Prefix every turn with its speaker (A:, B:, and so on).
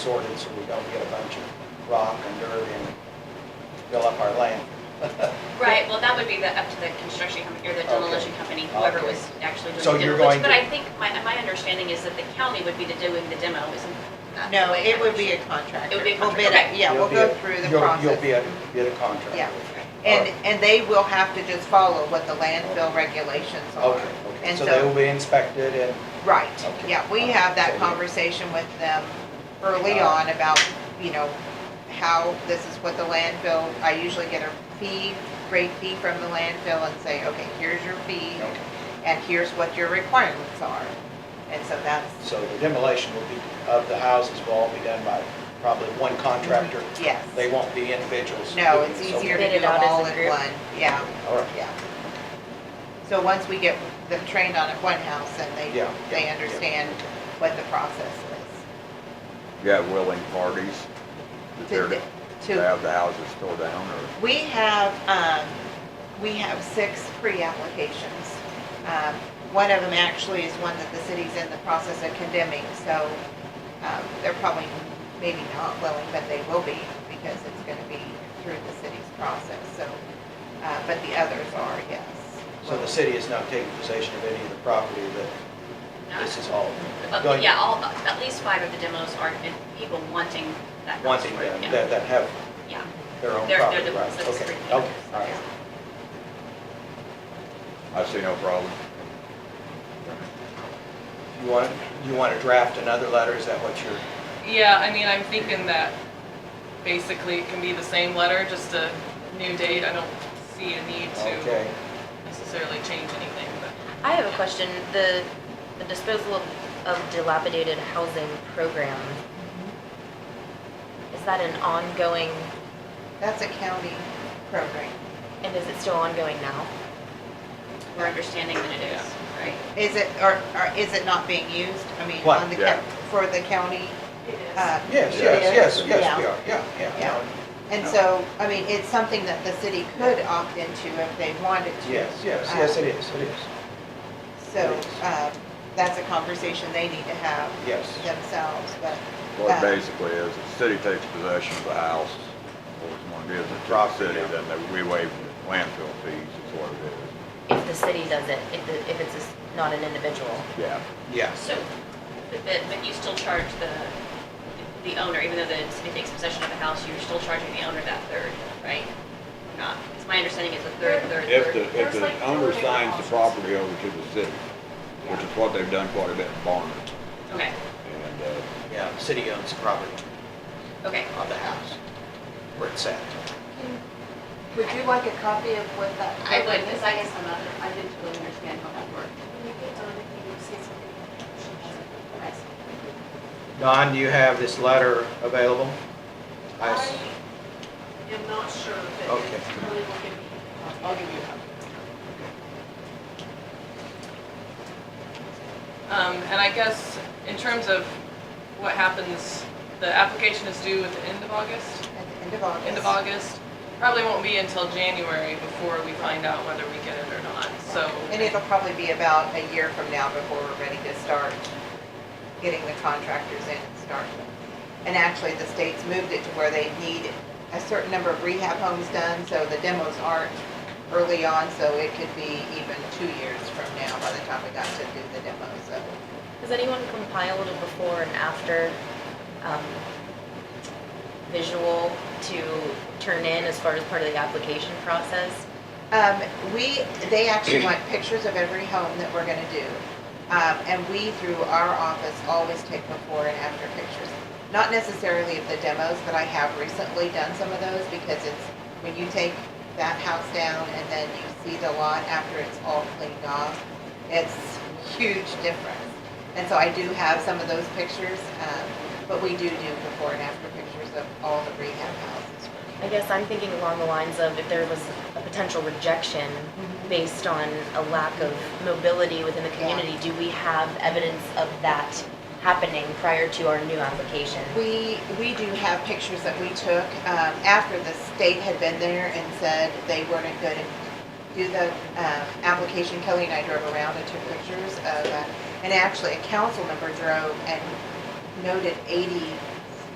A: sorted so we don't get a bunch of rock and dirt and fill up our land.
B: Right, well, that would be the, up to the construction company, or the demolition company, whoever
A: Okay.
B: was actually
A: So
B: doing the
A: you're going
B: demolition. But
A: to-
B: I think, my, my understanding is that the county would be the doing the demo, isn't that?
C: No,
B: the way
C: it would
B: I
C: be a contractor.
B: It would be a
C: We'll bid
B: contractor,
C: it. Yeah, we'll
A: You'll be
C: go
A: a-
C: through the
A: you'll- You'll
C: process.
A: be a, be a contractor.
C: Yeah. And,
A: Alright.
C: and they will have to just follow what the landfill regulations are.
A: Okay, okay,
C: And
A: so they
C: so,
A: will be inspected and,
C: right,
A: Okay.
C: yeah, we have
A: So
C: that
A: you-
C: conversation with them early
A: Uh,
C: on about, you know, how this is what the landfill, I usually get a fee, rate fee from the landfill and say, okay, here's your fee
A: Okay.
C: and here's what your requirements are. And so that's,
A: so the demolition will be, of the houses will all be done by probably one contractor.
C: yes.
A: They won't be individuals.
C: No,
A: doing
C: it's
A: this, okay.
C: easier to
B: Bid
C: do
B: it out as
C: them all
B: a
C: in
B: group.
C: one, yeah.
A: All right.
C: Yeah. So once we get them trained on at one house and they,
A: Yeah, yeah,
C: they
A: yeah.
C: understand what the process is.
D: got willing parties that
C: to-
D: they're to
C: to-
D: have the houses tore down or?
C: We have, um, we have six pre-applications. Um, one of them actually is one that the city's in the process of condemning, so, um, they're probably maybe not willing, but they will be because it's gonna be through the city's process, so, uh, but the others are, yes.
A: So the city is not taking possession of any of the property
B: No.
A: that this is all
B: Uh,
A: going,
B: Yeah, all, at least five of the demos are in people wanting that house.
A: wanting
B: for it,
A: them,
B: yeah.
A: that, that have
B: Yeah,
A: their own
B: They're- they're
A: property,
B: the ones
A: right?
B: that's
A: Okay,
B: free.
A: okay, all right.
D: I see no problem.
A: You want, you want to draft another letter, is that what you're?
E: Yeah, I mean, I'm thinking that basically it can be the same letter, just a new date. I don't see a need to
A: Okay,
E: necessarily change anything, but
F: I have a question. The, the disposal of, of dilapidated housing program, is that an ongoing,
C: That's a county program.
F: and is it still ongoing now?
B: we're understanding that it is, right?
C: Is it, or, or is it not being used? I mean,
A: What?
C: on the,
D: Yeah.
C: cap- for the county? uh,
A: yes,
D: Yeah.
A: yes, yes, yes,
C: Yeah.
A: we are, yeah, yeah.
C: Yeah. And so, I mean, it's something that the city could opt into if they wanted to.
A: Yes, yes,
C: Uh,
A: yes, it is, it is,
C: So,
A: it is.
C: um, that's a conversation they need to have
A: yes.
C: themselves, but,
D: What
C: Uh,
D: it basically is, the city takes possession of the house, or it's going to be as a drop
A: Property,
D: city,
A: yeah.
D: then they- we waive the landfill fees is what it is.
F: If the city does it, if, the- if it's a s- not an individual?
D: Yeah.
A: Yes.
B: So, but, but- but you still charge the, the owner, even though the city takes possession of the house, you're still charging the owner that third, right? Not, it's my understanding it's a third, third,
D: If the,
B: third.
D: if the owner signs the property over to the city, which is what they've done quite a bit in Barnard,
B: Okay,
D: and, uh,
A: Yeah, the city owns the property
B: okay.
A: of the house where it's at.
G: Would you like a copy of what that?
B: I would, because I guess I'm not, I didn't really understand how that worked.
A: Don, do you have this letter available? I
G: I
A: s-
G: am not sure, but
A: Okay.
G: it's really will give me.
C: I'll give you a copy.
E: Um, and I guess in terms of what happens, the application is due at the end of August,
C: at the end of August.
E: end of August. Probably won't be until January before we find out whether we get it or not, so.
C: And it'll probably be about a year from now before we're ready to start getting the contractors in and start. And actually, the state's moved it to where they need a certain number of rehab homes done, so the demos aren't early on, so it could be even two years from now by the time we got to do the demo, so.
F: Has anyone compiled a before and after, um, visual to turn in as far as part of the application process?
C: Um, we, they actually want pictures of every home that we're gonna do. Um, and we, through our office, always take before and after pictures. Not necessarily of the demos, but I have recently done some of those because it's, when you take that house down and then you see the lot after it's all cleaned off, it's huge difference. And so I do have some of those pictures, um, but we do do before and after pictures of all the rehab houses.
F: I guess I'm thinking along the lines of if there was a potential rejection based on a lack of mobility within the community, do we have evidence of that happening prior to our new application?
C: We, we do have pictures that we took um, after the state had been there and said they weren't going to do the um, application. Kelly and I drove around and took pictures of, uh, and actually a council member drove and noted 80